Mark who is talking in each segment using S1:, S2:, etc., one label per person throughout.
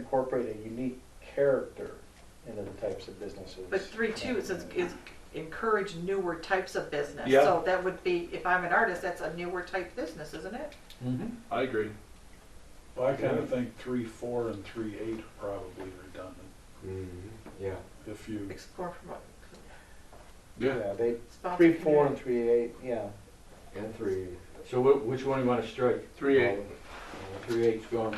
S1: incorporate a unique character into the types of businesses.
S2: But three two is, is encourage newer types of business.
S3: Yeah.
S2: So that would be, if I'm an artist, that's a newer type business, isn't it?
S3: I agree.
S4: Well, I kind of think three, four, and three, eight are probably redundant.
S5: Mm-hmm. Yeah.
S4: If you,
S2: Explore, promote,
S1: Yeah, they,
S2: sponsor.
S1: three, four, and
S2: community.
S1: three, eight, yeah.
S5: And three. So wh- which one you want to strike?
S3: Three eight.
S5: Three eight's gone.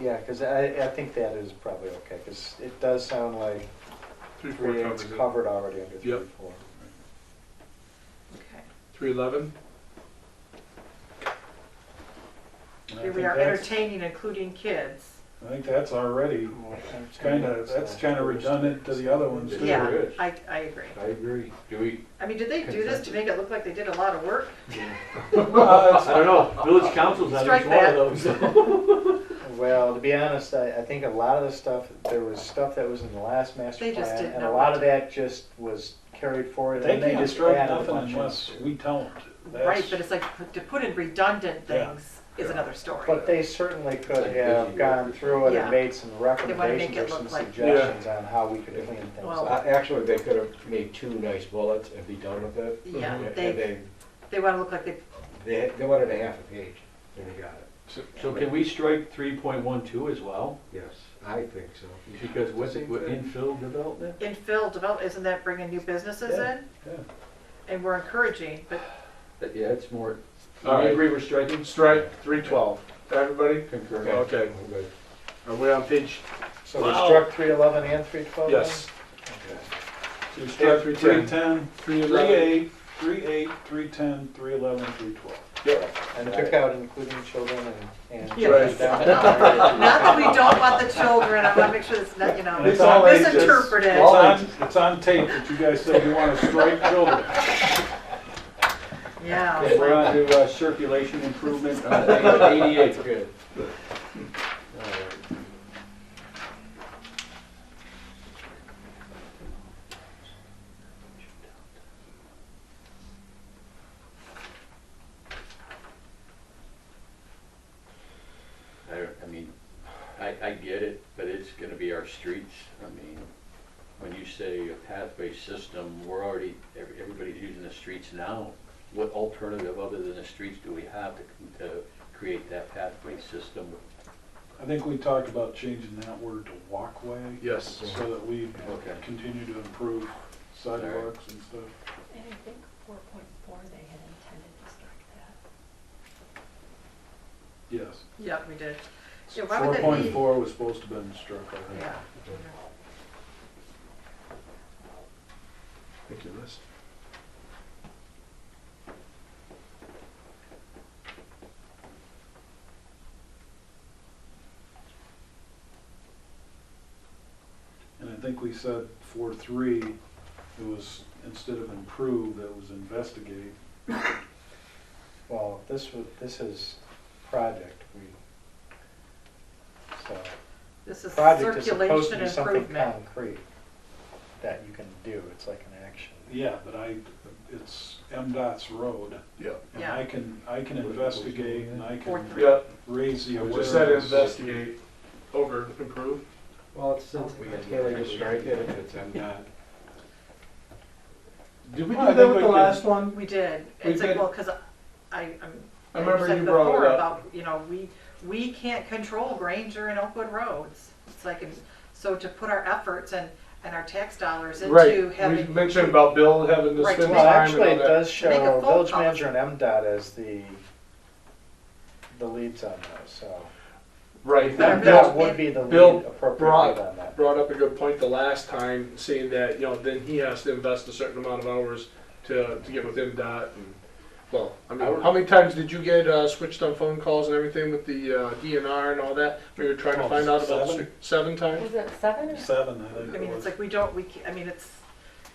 S1: Yeah, because I, I think that is probably okay, because it does sound like
S3: Three four
S1: three, eight's
S3: covers it.
S1: covered already under three,
S3: Yep.
S1: four.
S2: Okay.
S3: Three eleven.
S4: and
S2: Here
S4: I think
S2: we are
S4: that's,
S2: entertaining, including kids.
S4: I think that's already, it's kind of, that's kind of redundant to the other ones too.
S2: Yeah,
S5: is.
S2: I, I agree.
S5: I agree. Do we?
S2: I mean, did they do this to make it look like they did a lot of work?
S5: I don't know. Village council's on
S2: Strike
S5: each one of those.
S1: Well, to be honest, I, I think a lot of the stuff, there was stuff that was in the last master
S2: They just
S1: plan,
S2: didn't
S1: and
S2: know
S1: a
S2: what
S1: lot of
S2: to-
S1: that just was carried forward,
S4: They
S1: and they
S4: can't
S1: just
S4: strike
S1: added a
S4: nothing
S1: bunch of.
S4: unless we tell them to. That's-
S2: Right, but it's like, p- to put in redundant
S4: Yeah.
S2: things is another story.
S1: But they certainly could
S5: Like
S1: have
S5: busy
S1: gone
S5: workers.
S1: through it
S2: Yeah.
S1: and made some recommendations
S2: it
S1: or
S2: look
S1: some
S2: like-
S1: suggestions on how we could clean things
S2: Well-
S1: up.
S5: Uh, Actually, they could have made two nice bullets and be done with it.
S2: Yeah,
S4: Mm-hmm.
S5: And
S2: they,
S5: they,
S2: they wanna look like they,
S5: they, they wanted a half a page and they got it.
S6: So can we strike three point one two as well?
S5: Yes, I think so.
S6: Because what's it, what, infill development?
S2: infill develop, isn't that bringing new businesses
S4: Yeah,
S2: in?
S4: yeah.
S2: And we're encouraging, but
S6: Uh, Yeah, it's more, we
S3: All right.
S6: agree we're striking?
S3: Strike three twelve. Everybody.
S6: Concur.
S3: Okay.
S5: I'm good.
S3: Are we on page?
S1: So we struck three eleven and three twelve?
S3: Yes.
S4: You
S3: Strike
S4: strike
S3: three
S4: three
S3: ten.
S4: ten,
S3: Three
S4: three
S3: eleven.
S4: eight, three eight, three ten, three eleven, three twelve.
S1: And took out including children and, and.
S2: Yeah.
S1: just down to-
S2: not that we don't want the children, I wanna make sure it's not, you know,
S4: And it's all ages.
S2: misinterpreted.
S4: It's on, it's on tape that you guys said you want to strike children.
S2: Yeah.
S6: Okay,
S2: it's
S6: we're
S2: like-
S6: on to uh, circulation improvement, uh, page eighty-eight.
S5: Good.
S6: I, I mean, I, I get it, but it's gonna be our streets. I mean, when you say a pathway system, we're already, every- everybody's using the streets now. What alternative other than the streets do we have to, to create that pathway system?
S4: I think we talked about changing that word to walkway
S3: Yes.
S4: so that we
S6: Okay.
S4: continue to improve sidewalks and stuff.
S7: And I think four point four, they had intended to strike that.
S4: Yes.
S2: Yeah, we did. Yeah, why
S4: Four
S2: would that
S4: point
S2: be?
S4: four was supposed to have been struck, I think.
S2: Yeah.
S3: Thank you, Liz.
S4: And I think we said four, three, it was, instead of improve, it was investigate.
S1: Well, this was, this is project, we, so,
S2: This is
S1: project is supposed to
S2: circulation
S1: be something
S2: improvement.
S1: concrete that you can do, it's like an action.
S4: Yeah, but I, it's MDOT's road.
S3: Yeah.
S4: And
S2: Yeah.
S4: I can, I can investigate and I
S2: Four,
S4: can
S2: three.
S3: Yeah.
S4: raise the
S3: We
S4: awareness.
S3: just said investigate over improve.
S5: Well, it's, it's really just strike it if it's MDOT.
S3: Did
S4: we Well, do I that think with we the did. last
S3: one?
S2: We did.
S3: We
S2: It's like,
S3: did-
S2: well, because I, I'm.
S3: I remember
S2: said
S3: you brought it
S2: before
S3: up.
S2: About, you know, we, we can't control Granger and Oakwood roads. It's like, and so to put our efforts and, and our tax dollars
S3: Right.
S2: into
S3: We
S2: having,
S3: mentioned about Bill having to
S2: Right,
S3: spend
S2: to
S3: time and
S2: make-
S1: Well, actually,
S3: all
S1: it
S3: that.
S1: does
S2: Make a
S1: show
S2: phone
S1: village
S2: call.
S1: manager and MDOT as the, the leads on those, so.
S2: Better
S3: Right. That
S2: Bill-
S1: That
S3: Bill
S1: would be the
S3: Bill
S1: lead appropriate
S3: brought-
S1: lead on that.
S3: brought up a good point the last time, saying that, you know, then he has to invest a certain amount of hours to, to get with MDOT and, well, I mean, how many times did you get, uh, switched on phone calls and everything with the, uh, DNR and all that? We were trying to
S4: Oh,
S3: find out about
S4: seven?
S3: stre- seven times?
S7: Was it seven or?
S4: Seven, I think
S2: I
S4: it
S2: mean,
S4: was.
S2: it's like, we don't, we, ca- I mean, it's,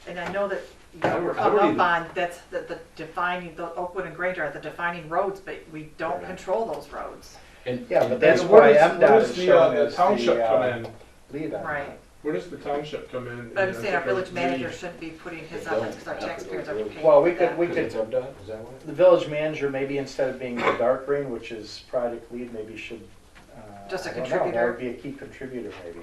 S2: and I know that you
S6: I
S2: know,
S6: would- I
S2: come
S6: would
S2: up
S6: even-
S2: on, that's, the the defining, the Oakwood and Granger are the defining roads, but we don't
S6: Right.
S2: control those roads.
S6: And
S1: Yeah, but
S6: and
S1: that's
S3: And where
S1: why
S3: does-
S1: MDOT is
S3: Where does
S1: showing
S3: the, uh,
S1: as
S3: the
S1: the,
S3: township come
S1: uh,
S3: in?
S1: lead on
S2: Right.
S1: that.
S3: Where does the township come in?
S2: But I'm
S3: and
S2: saying our
S3: take a
S2: village manager
S3: lead?
S2: shouldn't be putting his
S6: They don't.
S2: efforts, because our taxpayers are paying.
S1: Well, we
S2: for
S1: could,
S2: that.
S1: we
S5: Because it's
S1: could,
S5: MDOT, is that what?
S1: the village manager, maybe instead of being the dark green, which is project lead, maybe should, uh,
S2: just a
S1: I don't know, that
S2: contributor.
S1: would be a key contributor maybe.